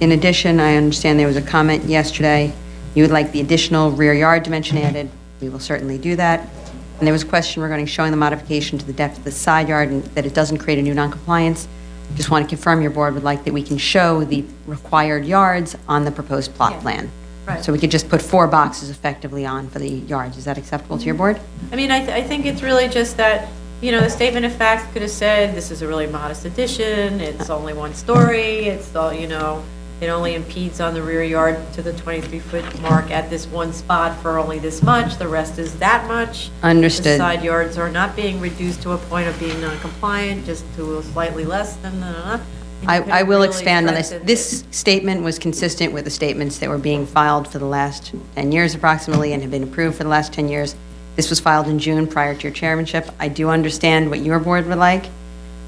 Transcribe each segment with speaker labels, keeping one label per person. Speaker 1: In addition, I understand there was a comment yesterday, you would like the additional rear yard dimension added. We will certainly do that. And there was a question regarding showing the modification to the depth of the side yard and that it doesn't create a new noncompliance. Just want to confirm your board would like that we can show the required yards on the proposed plot plan.
Speaker 2: right.
Speaker 1: So we could just put four boxes effectively on for the yards. Is that acceptable to your board?
Speaker 2: I mean, I, th- I think it's really just that, you know, the statement of fact could have said, this is a really modest addition, it's only one story, it's all, you know, it only impedes on the rear yard to the 23-foot mark at this one spot for only this much, the rest is that much. The
Speaker 1: Understood.
Speaker 2: side yards are not being reduced to a point of being non-compliant, just to slightly less than, da, da, da. And you could
Speaker 1: I, I
Speaker 2: have
Speaker 1: will
Speaker 2: really
Speaker 1: expand on this.
Speaker 2: stressed it.
Speaker 1: This statement was consistent with the statements that were being filed for the last 10 years approximately and have been approved for the last 10 years. This was filed in June prior to your chairmanship. I do understand what your board would like,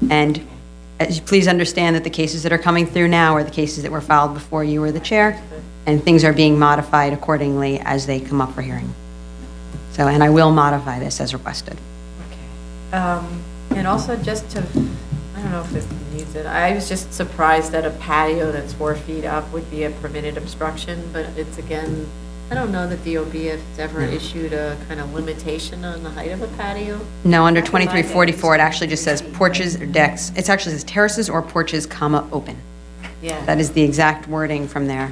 Speaker 1: and as you- please understand that the cases that are coming through now are the cases that were filed before you were the chair, and things are being modified accordingly as they come up for hearing. So, and I will modify this as requested.
Speaker 2: Um, And also just to, I don't know if this needs it, I was just surprised that a patio that's four feet up would be a permitted obstruction, but it's again, I don't know that DOB has ever issued a kind of limitation on the height of a patio.
Speaker 1: No, under 2344, it actually just says porches or decks. It actually says terraces or porches, comma, open.
Speaker 2: Yeah.
Speaker 1: That is the exact wording from there.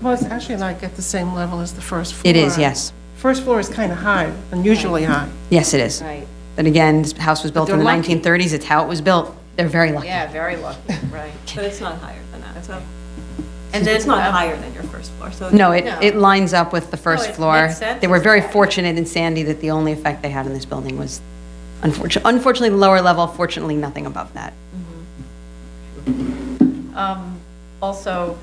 Speaker 3: Well, it's actually like at the same level as the first floor.
Speaker 1: It is, yes.
Speaker 3: First floor is kind of high, unusually high.
Speaker 1: Yes, it is.
Speaker 2: Right,
Speaker 1: But again, this house was built in the
Speaker 3: they're lucky.
Speaker 1: 1930s, it's how it was built. They're very lucky.
Speaker 2: yeah, very lucky, right.
Speaker 4: But it's not higher than that, so.
Speaker 2: And
Speaker 4: And
Speaker 2: then-
Speaker 4: it's not higher than your first floor, so.
Speaker 1: No, it,
Speaker 2: No.
Speaker 1: it lines up with the first
Speaker 2: it
Speaker 1: floor.
Speaker 2: makes sense.
Speaker 1: They were very fortunate in Sandy that the only effect they had on this building was unfortunately, unfortunately, lower level, fortunately, nothing above that.
Speaker 2: Um, Also,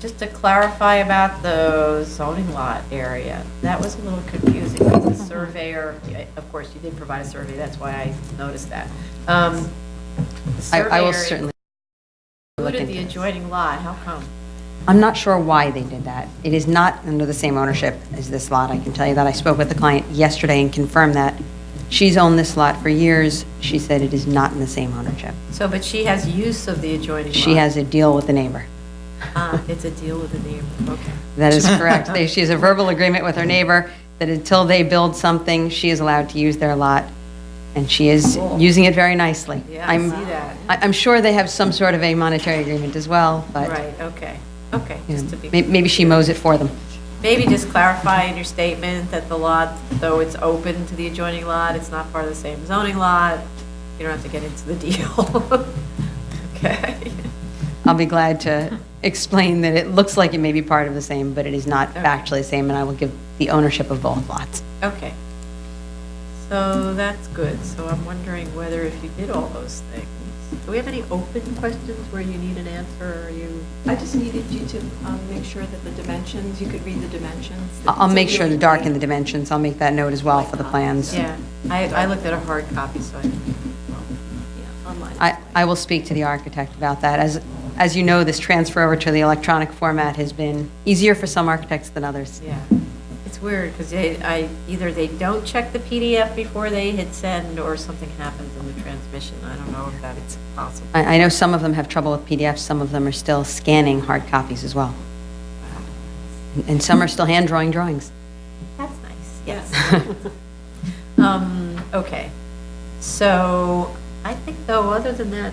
Speaker 2: just to clarify about the zoning lot area, that was a little confusing. The surveyor, of course, you did provide a survey, that's why I noticed that. Um, the
Speaker 1: I, I will
Speaker 2: surveyor
Speaker 1: certainly, look
Speaker 2: Included the
Speaker 1: into this.
Speaker 2: adjoining lot, how come?
Speaker 1: I'm not sure why they did that. It is not under the same ownership as this lot, I can tell you that. I spoke with the client yesterday and confirmed that. She's owned this lot for years. She said it is not in the same ownership.
Speaker 2: So, but she has use of the adjoining lot.
Speaker 1: She has a deal with the neighbor.
Speaker 2: Ah, It's a deal with the neighbor, okay.
Speaker 1: That is correct. They- She has a verbal agreement with her neighbor that until they build something, she is allowed to use their lot, and she is using it very nicely.
Speaker 2: Yeah, I
Speaker 1: I'm-
Speaker 2: see that.
Speaker 1: I- I'm sure they have some sort of a monetary agreement as well, but
Speaker 2: Right, okay, okay,
Speaker 1: you know,
Speaker 2: just to
Speaker 1: may-
Speaker 2: be,
Speaker 1: maybe she mows it for them.
Speaker 2: maybe just clarify in your statement that the lot, though it's open to the adjoining lot, it's not part of the same zoning lot, you don't have to get into the deal. Okay,
Speaker 1: I'll be glad to explain that it looks like it may be part of the same, but it is not
Speaker 2: Okay.
Speaker 1: factually the same, and I will give the ownership of both lots.
Speaker 2: okay. So that's good, so I'm wondering whether if you did all those things, do we have any open questions where you need an answer, or you?
Speaker 4: I just needed you to um, make sure that the dimensions, you could read the dimensions.
Speaker 1: I- I'll make sure to darken the dimensions, I'll make that note as well for the plans.
Speaker 2: Yeah, I, I looked at a hard copy, so I,
Speaker 4: Yeah, online.
Speaker 1: I, I will speak to the architect about that. As, as you know, this transfer over to the electronic format has been easier for some architects than others.
Speaker 2: yeah. It's weird, because they, I, either they don't check the PDF before they hit send, or something happens in the transmission. I don't know if that's possible.
Speaker 1: I, I know some of them have trouble with PDFs, some of them are still scanning hard copies as well. And- And some are still hand drawing drawings.
Speaker 2: That's nice, yes. Um, okay. So I think though, other than that,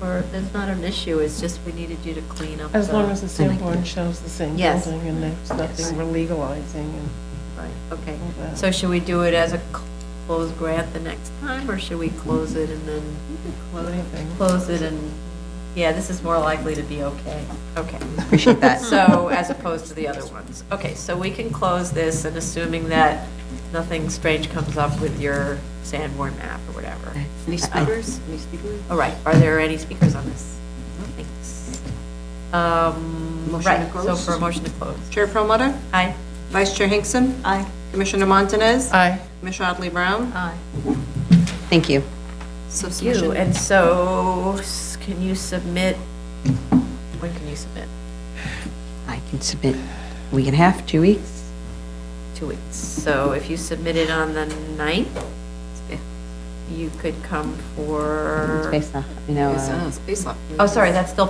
Speaker 2: or there's not an issue, it's just we needed you to clean up.
Speaker 3: As
Speaker 2: the-
Speaker 3: long as the
Speaker 1: I like
Speaker 3: sandboard
Speaker 1: that.
Speaker 3: shows the same
Speaker 2: Yes.
Speaker 3: building and there's nothing we're legalizing and
Speaker 2: Right, okay.
Speaker 3: all that.
Speaker 2: So should we do it as a closed grant the next time, or should we close it and then?
Speaker 3: Anything.
Speaker 2: close it and, yeah, this is more likely to be okay. Okay.
Speaker 1: Appreciate that.
Speaker 2: So, as opposed to the other ones. Okay, so we can close this and assuming that nothing strange comes up with your Sanborn map or whatever.
Speaker 4: Any speakers? Any speakers?
Speaker 2: All right, are there any speakers on this? Thanks. Um,
Speaker 5: Motion to
Speaker 2: right, so
Speaker 5: close?
Speaker 2: for a motion to close.
Speaker 5: Chair Promoter,
Speaker 2: Aye.
Speaker 5: Vice Chair Hinkson. Aye. Commissioner Montanez.
Speaker 3: Aye.
Speaker 5: Commissioner Otley Brown.
Speaker 2: Aye.
Speaker 1: Thank you.
Speaker 5: So
Speaker 2: You,
Speaker 5: submission.
Speaker 2: and so, s- can you submit, when can you submit?
Speaker 1: I can submit week and a half, two weeks.
Speaker 2: two weeks. So if you submit it on the 9th, you could come for,
Speaker 1: Space off, you know. uh,
Speaker 5: Space Lab.
Speaker 2: oh, sorry, that's still